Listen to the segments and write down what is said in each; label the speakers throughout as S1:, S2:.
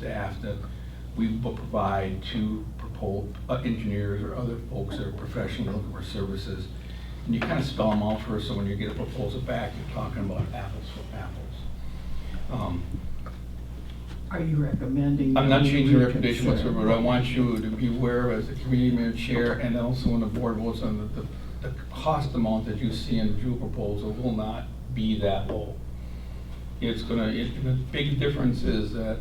S1: staff that we will provide to propos- uh, engineers or other folks that are professional looking for services. And you kind of spell them out for us, so when you get a proposal back, you're talking about apples for apples. Um,
S2: Are you recommending?
S1: I'm not
S2: that we
S1: changing the
S2: reconsider?
S1: recommendation whatsoever, but I want you to be aware as the committee mayor chair and also when the board votes on the, the, the cost amount that you see in the Jewel proposal will not be that low. It's gonna, it, the big difference is that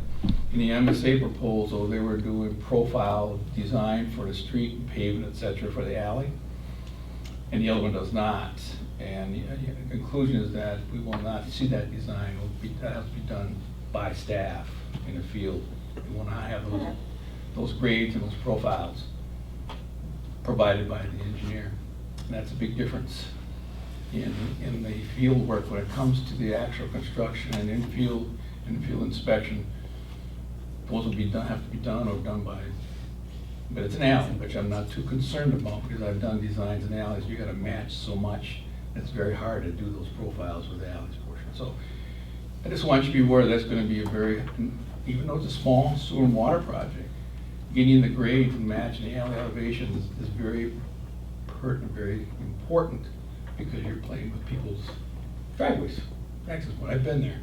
S1: in the MSA proposal, they were doing profile design for the street and pavement, et cetera, for the alley. And the other one does not. And the uh, the conclusion is that we will not see that design, it'll be, that has to be done by staff in the field. We will not have those, those grades and those profiles provided by the engineer. And that's a big difference in, in the field work when it comes to the actual construction and in-field, in-field inspection. Those will be done, have to be done or done by, but it's an alley, which I'm not too concerned about because I've done designs in alleys. You gotta match so much. It's very hard to do those profiles with the alleys portion. So I just want you to be aware that's gonna be a very, even though it's a small sewer and water project, getting the grade to match the alley elevations is very pertinent, very important, because you're playing with people's driveways, access point, I've been there.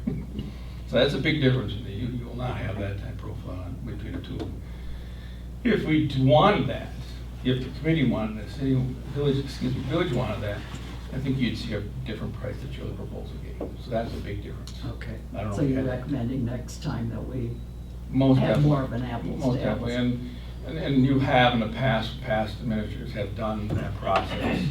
S1: So that's a big difference, you, you will not have that type of profile between the two of them. If we d- wanted that, if the committee wanted that, city, village, excuse me, village wanted that, I think you'd see a different price that your proposal gave, so that's a big difference.
S2: Okay,
S1: I don't know
S2: so
S1: if you
S2: you're
S1: had-
S2: recommending next time that we,
S1: Most
S2: Have
S1: definitely.
S2: more of an apples
S1: Most
S2: to
S1: definitely,
S2: apples.
S1: and, and- and you have in the past, past administrators have done that process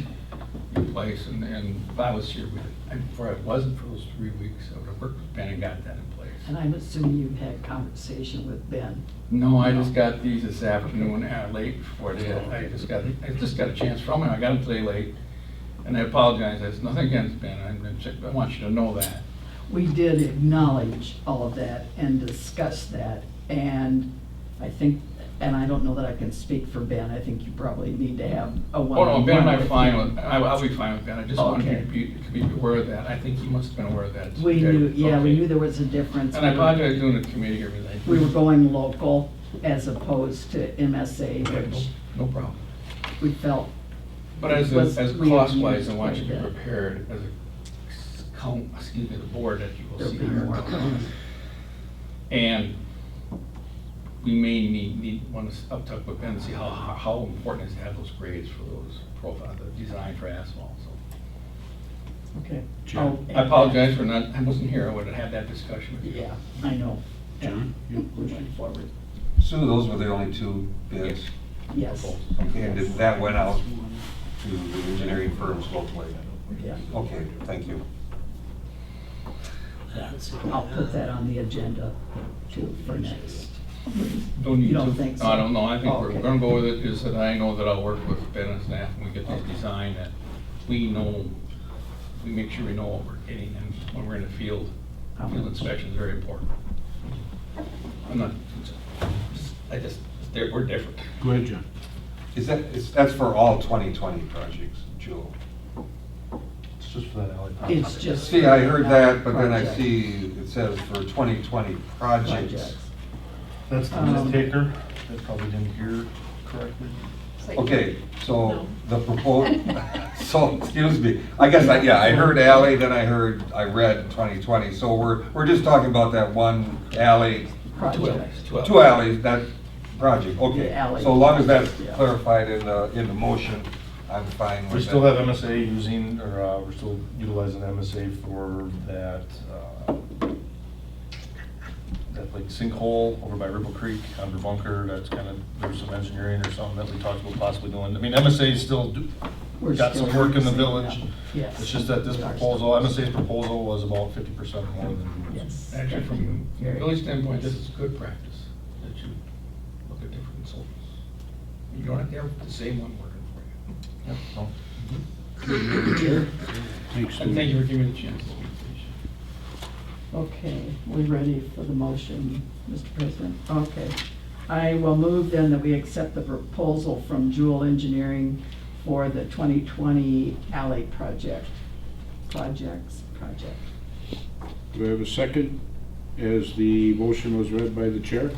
S1: in place, and, and if I was here, we- and for it wasn't for those three weeks, I would have worked with Ben and got that in place.
S2: and I'm assuming you've had conversation with Ben.
S1: No, I just got these this afternoon, uh, late before it hit, I just got, I just got a chance from him, I got them today late, and I apologize, it's nothing against Ben, I'm gonna check- I want you to know that.
S2: We did acknowledge all of that and discuss that, and I think, and I don't know that I can speak for Ben, I think you probably need to have a
S1: Oh,
S2: one-on-one.
S1: no, Ben and I are
S2: with
S1: fine
S2: him.
S1: with, I- I'll be fine with Ben, I just wanted you to
S2: Okay.
S1: be, to be aware of that, I think he must have been aware of that.
S2: We
S1: today.
S2: knew, yeah, we
S1: Okay.
S2: knew there was a difference.
S1: And I apologize doing the committee here, but I.
S2: We were going local as opposed to MSA,
S1: No
S2: which
S1: no problem.
S2: we felt
S1: But as,
S2: Was-
S1: a- as
S2: we
S1: cost wise, I
S2: used
S1: want you to be
S2: quite a bit.
S1: prepared as a, count- excuse me, the board that you will
S2: there'd
S1: see
S2: be
S1: here.
S2: more.
S1: And we may need, need, want to up talk with Ben and see how, how how important it is to have those grades for those profile, the design for asphalt, so.
S2: Okay.
S3: John?
S2: I'll add
S1: I
S2: that.
S1: apologize for not, I wasn't here, I would have had that discussion with you.
S2: Yeah, I know.
S3: John?
S2: We went forward,
S4: So those were the only two bids?
S1: Yes.
S2: yes,
S4: Okay, and if that went out to the engineering firms locally?
S2: yeah.
S4: Okay, thank you.
S2: I'll put that on the agenda too for next.
S1: Don't need
S2: You
S1: to.
S2: don't think
S1: No, I
S2: so?
S1: don't know, I think we're
S2: Okay.
S1: gonna go with it, is that I know that I'll work with Ben and staff, when we get this design, that we know, we make sure we know what we're getting, and when we're in the field, field inspection is very important. I'm not, I just, they're- we're different.
S3: Go ahead, John.
S4: Is that, is, that's for all 2020 projects, Jewel?
S5: It's just for that alley.
S2: It's just.
S4: See, I heard that, but then I
S2: Project.
S4: see it says for 2020
S2: Projects.
S4: projects.
S5: That's the
S2: Um,
S5: mistaker. I probably didn't hear correctly.
S4: Okay, so the proposal, so, excuse me, I guess, I yeah, I heard alley, then I heard, I read 2020, so we're, we're just talking about that one alley
S2: Projects.
S1: Twelve.
S4: Two alleys, that project, okay.
S2: The alley.
S4: So long as that's
S2: Yeah.
S4: clarified in the, in the motion, I'm fine with that.
S5: We still have MSA using, or uh, we're still utilizing MSA for that, uh, that like sinkhole over by Ripple Creek under Bunker. That's kind of, there's some engineering or something that we talked about possibly doing. I mean, MSA is still, do-
S2: We're
S5: got some
S2: still
S5: work in the
S2: focusing,
S5: village.
S2: yeah. Yes.
S5: It's just that this proposal, MSA's proposal was about fifty percent more than.
S2: Yes.
S1: Actually, from a
S2: Very-
S1: village standpoint, this is good practice, that you look at different consultants. You don't have to have the same one working for you.
S5: Yep, so.
S3: Thanks,
S1: And thank
S3: Steve.
S1: you for giving me the chance to speak to you.
S2: Okay, we ready for the motion, Mr. President? Okay. I will move then that we accept the proposal from Jewel Engineering for the 2020 alley project. Projects, project.
S3: Do I have a second? As the motion was read by the chair?